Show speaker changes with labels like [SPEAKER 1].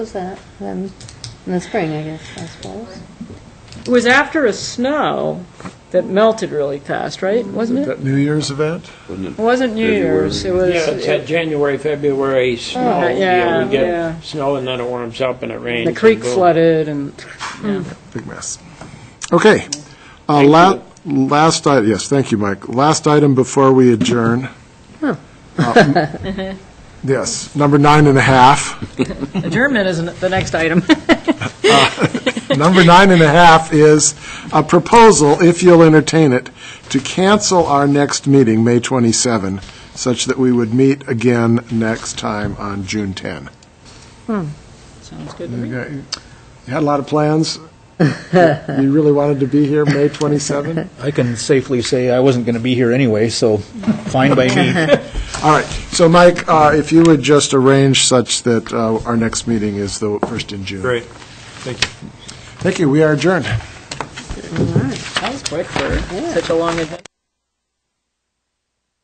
[SPEAKER 1] was that? Then, in the spring, I guess, I suppose.
[SPEAKER 2] It was after a snow that melted really fast, right? Wasn't it?
[SPEAKER 3] That New Year's event?
[SPEAKER 2] It wasn't New Year's, it was.
[SPEAKER 4] Yeah, it's that January, February snow.
[SPEAKER 2] Oh, yeah,
[SPEAKER 4] We
[SPEAKER 2] yeah.
[SPEAKER 4] get snow and then it warms up and it rains.
[SPEAKER 2] The creek
[SPEAKER 4] and boom.
[SPEAKER 2] flooded and,
[SPEAKER 3] Big mess. Okay. Uh, la- Last, i- yes, thank you, Mike. Last item before we adjourn. Uh, m- Yes, number nine and a half.
[SPEAKER 2] adjournment isn't the next item.
[SPEAKER 3] Number nine and a half is a proposal, if you'll entertain it, to cancel our next meeting, May 27, such that we would meet again next time on June 10.
[SPEAKER 2] Sounds good to
[SPEAKER 3] You
[SPEAKER 2] me.
[SPEAKER 3] got- you had a lot of plans. You really wanted to be here May 27?
[SPEAKER 5] I can safely say I wasn't going to be here anyway, so fine by me.
[SPEAKER 3] All right, so Mike, uh, if you would just arrange such that uh, our next meeting is the first in June.
[SPEAKER 6] Great, thank you.
[SPEAKER 3] Thank you, we are adjourned.
[SPEAKER 2] That was quick for such a long event.